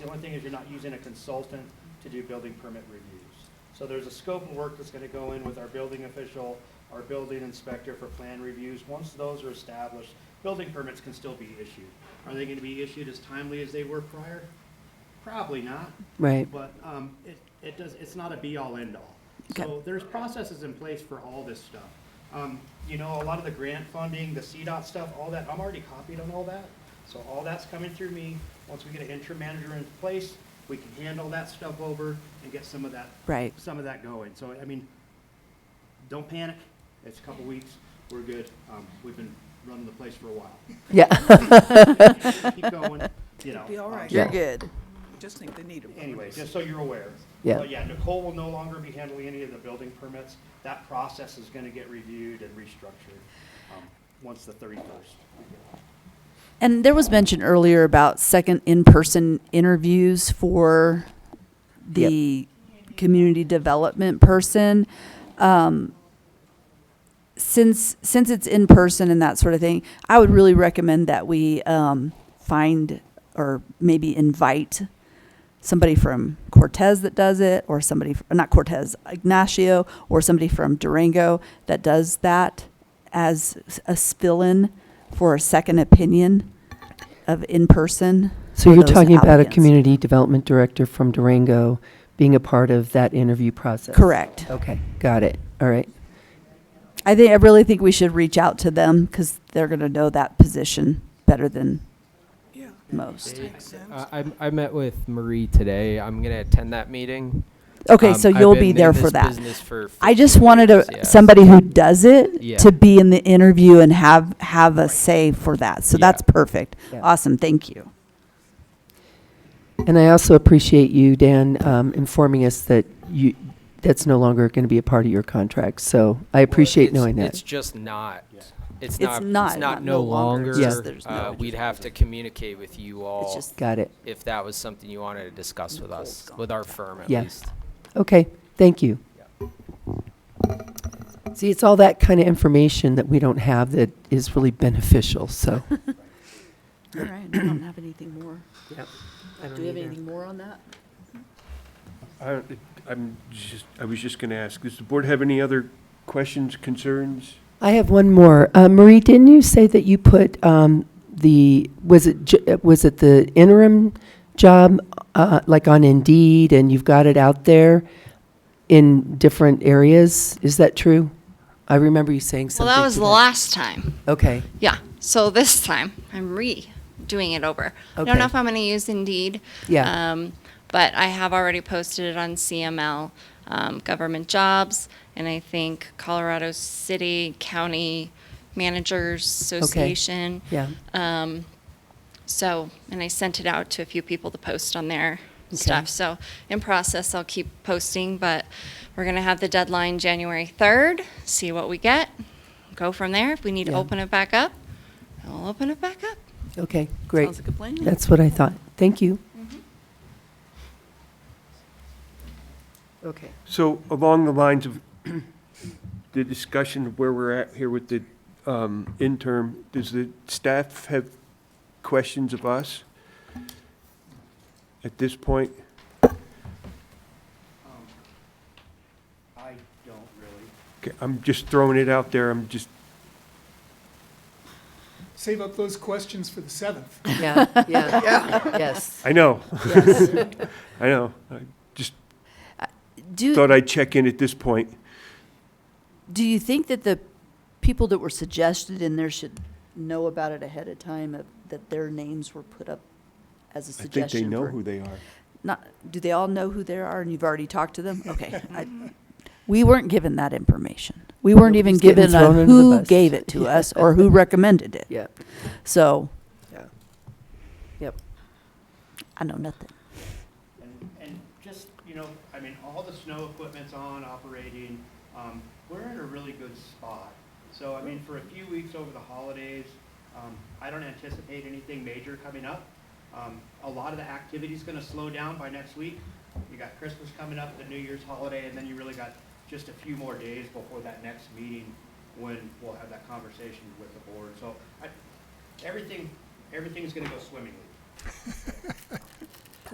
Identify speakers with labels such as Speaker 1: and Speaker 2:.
Speaker 1: one thing is you're not using a consultant to do building permit reviews. So there's a scope of work that's gonna go in with our building official, our building inspector for plan reviews. Once those are established, building permits can still be issued. Are they gonna be issued as timely as they were prior? Probably not,
Speaker 2: Right.
Speaker 1: but um, it, it does, it's not a be-all, end-all.
Speaker 2: Okay.
Speaker 1: So there's processes in place for all this stuff. Um, You know, a lot of the grant funding, the CDOT stuff, all that, I'm already copied on all that. So all that's coming through me. Once we get an interim manager in place, we can handle that stuff over and get some of that,
Speaker 2: Right.
Speaker 1: some of that going. So, I mean, don't panic. It's a couple weeks. We're good. Um, We've been running the place for a while.
Speaker 2: Yeah.
Speaker 1: Keep going, you know.
Speaker 3: Be all
Speaker 1: um,
Speaker 3: right.
Speaker 2: You're
Speaker 3: Yeah.
Speaker 2: good.
Speaker 3: Just think they need them.
Speaker 1: Anyway, just so you're aware.
Speaker 2: Yeah.
Speaker 1: But yeah, Nicole will no longer be handling any of the building permits. That process is gonna get reviewed and restructured, um, once the thirty-first.
Speaker 2: And there was mention earlier about second in-person interviews for the community development person. Um, Since, since it's in person and that sort of thing, I would really recommend that we um, find or maybe invite somebody from Cortez that does it, or somebody, f- not Cortez, Ignacio, or somebody from Durango that does that as s- a fill-in for a second opinion of in-person.
Speaker 4: So you're
Speaker 2: those
Speaker 4: talking about a
Speaker 2: applicants.
Speaker 4: community development director from Durango being a part of that interview process?
Speaker 2: Correct.
Speaker 4: Okay, got it. All right.
Speaker 2: I think, I really think we should reach out to them because they're going to know that position better than
Speaker 3: Yeah,
Speaker 2: most.
Speaker 3: makes sense.
Speaker 5: Uh, I, I met with Marie today. I'm gonna attend that meeting.
Speaker 2: Okay,
Speaker 5: Um,
Speaker 2: so
Speaker 5: I've
Speaker 2: you'll
Speaker 5: been
Speaker 2: be
Speaker 5: in
Speaker 2: there
Speaker 5: this
Speaker 2: for that.
Speaker 5: business for
Speaker 2: I
Speaker 5: 15
Speaker 2: just wanted
Speaker 5: years,
Speaker 2: a,
Speaker 5: yeah.
Speaker 2: somebody who does it
Speaker 5: Yeah.
Speaker 2: to be in the interview and have, have a say for that. So
Speaker 5: Yeah.
Speaker 2: that's perfect.
Speaker 4: Yeah.
Speaker 2: Awesome. Thank you.
Speaker 4: And I also appreciate you, Dan, um, informing us that you, that's no longer going to be a part of your contract. So I
Speaker 5: Well,
Speaker 4: appreciate
Speaker 5: it's-
Speaker 4: knowing that.
Speaker 5: It's just not.
Speaker 1: Yeah.
Speaker 5: It's
Speaker 2: It's
Speaker 5: not.
Speaker 2: not, not
Speaker 5: It's not no
Speaker 2: no longer,
Speaker 5: longer.
Speaker 4: it's just
Speaker 2: there's no-
Speaker 5: Uh, we'd have to communicate with you all
Speaker 2: just-
Speaker 4: Got it.
Speaker 5: if that was something you wanted to discuss with us, with our firm at
Speaker 4: Yeah.
Speaker 5: least.
Speaker 4: Okay, thank you. See, it's all that kind of information that we don't have that is really beneficial, so.
Speaker 2: All right. I don't have anything more. Do we have anything more on that?
Speaker 6: I- I'm just, I was just going to ask, does the board have any other questions, concerns?
Speaker 4: I have one more. Uh, Marie, didn't you say that you put um, the, was it, j- uh, was it the interim job, uh, like on Indeed, and you've got it out there in different areas? Is that true? I remember you saying
Speaker 7: Well,
Speaker 4: something.
Speaker 7: that was
Speaker 4: to
Speaker 7: the last time.
Speaker 4: Okay,
Speaker 7: Yeah. So this time I'm redoing it over. I don't
Speaker 4: Okay.
Speaker 7: know if I'm going to use Indeed.
Speaker 4: Yeah.
Speaker 7: Um, but I have already posted it on CML, um, government jobs, and I think Colorado City County Managers Association.
Speaker 4: yeah.
Speaker 7: Um, so, and I sent it out to a few people to post on their stuff. So, in process, I'll keep posting, but we're going to have the deadline January 3rd, see what we get, go from there. If we need to
Speaker 4: Yeah.
Speaker 7: open it back up, we'll open it back up.
Speaker 4: Okay, great.
Speaker 3: Sounds like a plan.
Speaker 4: That's what I thought. Thank you.
Speaker 7: Mm-hmm.
Speaker 4: Okay.
Speaker 6: So along the lines of the discussion of where we're at here with the um, interim, does the staff have questions of us at this point?
Speaker 1: I don't really.
Speaker 6: Okay, I'm just throwing it out there, I'm just,
Speaker 8: Save up those questions for the seventh.
Speaker 4: Yeah, yeah, yes.
Speaker 6: I know,
Speaker 4: Yes.
Speaker 6: I know. I just
Speaker 2: Do,
Speaker 6: thought I'd check in at this point.
Speaker 2: do you think that the people that were suggested in there should know about it ahead of time, of- that their names were put up as a
Speaker 6: I think
Speaker 2: suggestion?
Speaker 6: they know
Speaker 2: for-
Speaker 6: who they are.
Speaker 2: Not, do they all know who they are and you've already talked to them? Okay. I- We weren't given that information. We weren't even
Speaker 4: Nobody's getting
Speaker 2: given a
Speaker 4: thrown under the
Speaker 2: who
Speaker 4: bus.
Speaker 2: gave it to us or who recommended it.
Speaker 4: Yeah,
Speaker 2: So
Speaker 4: yeah. Yep.
Speaker 2: I know nothing.
Speaker 1: And, and just, you know, I mean, all the snow equipment's on, operating. Um, we're in a really good spot. So, I mean, for a few weeks over the holidays, um, I don't anticipate anything major coming up. Um, a lot of the activity's gonna slow down by next week. You got Christmas coming up, the New Year's holiday, and then you really got just a few more days before that next meeting when we'll have that conversation with the board. So, I, everything, everything's gonna go swimmingly.